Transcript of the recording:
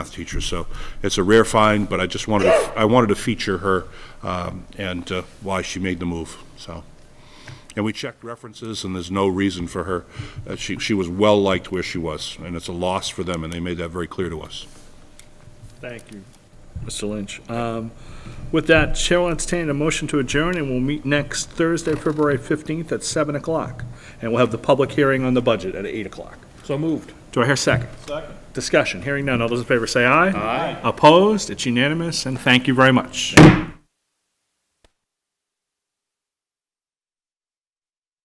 math teacher, so it's a rare find, but I just wanted, to- I wanted to feature her um, and uh, why she made the move, so. And we checked references, and there's no reason for her, uh, she, she was well-liked where she was, and it's a loss for them, and they made that very clear to us. Thank you, Mr. Lynch. Um, With that, Chair will entertain a motion to adjourn, and we'll meet next Thursday, February 15th at 7 o'clock. And we'll have the public hearing on the budget at 8 o'clock. So moved. Do I hear a second? Second. Discussion, hearing none. All those in favor say aye. Aye. Opposed? It's unanimous, and thank you very much.